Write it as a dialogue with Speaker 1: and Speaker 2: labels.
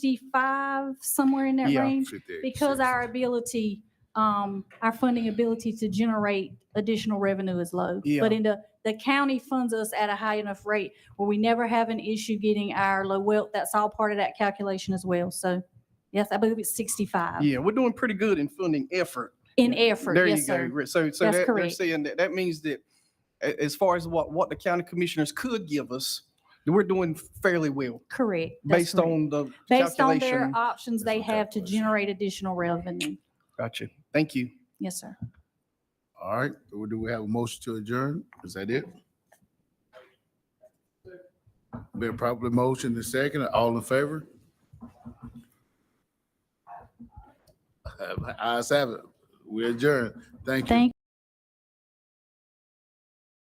Speaker 1: 55, somewhere in that
Speaker 2: Yeah,
Speaker 1: range.
Speaker 2: 58,
Speaker 1: Because our ability, um, our funding ability to generate additional revenue is low.
Speaker 2: Yeah.
Speaker 1: But in the, the county funds us at a high enough rate where we never have an issue getting our low wealth. That's all part of that calculation as well. So yes, I believe it's 65
Speaker 2: Yeah, we're doing pretty good in funding effort.
Speaker 1: in effort.
Speaker 2: There
Speaker 1: Yes,
Speaker 2: you go.
Speaker 1: sir.
Speaker 2: Great. So, so
Speaker 1: That's
Speaker 2: that, they're
Speaker 1: correct.
Speaker 2: saying that, that means that a- as far as what, what the county commissioners could give us, that we're doing fairly well
Speaker 1: Correct. That's
Speaker 2: based
Speaker 1: correct.
Speaker 2: on the
Speaker 1: Based on their
Speaker 2: calculation.
Speaker 1: options they
Speaker 3: Based on
Speaker 1: have to
Speaker 3: calculation.
Speaker 1: generate additional revenue.
Speaker 2: Gotcha. Thank you.
Speaker 1: Yes, sir.
Speaker 3: All right, do do we have a motion to adjourn? Is that it? Been properly motion to second, all in favor? Ayes have it, we adjourn, thank you.
Speaker 1: Thank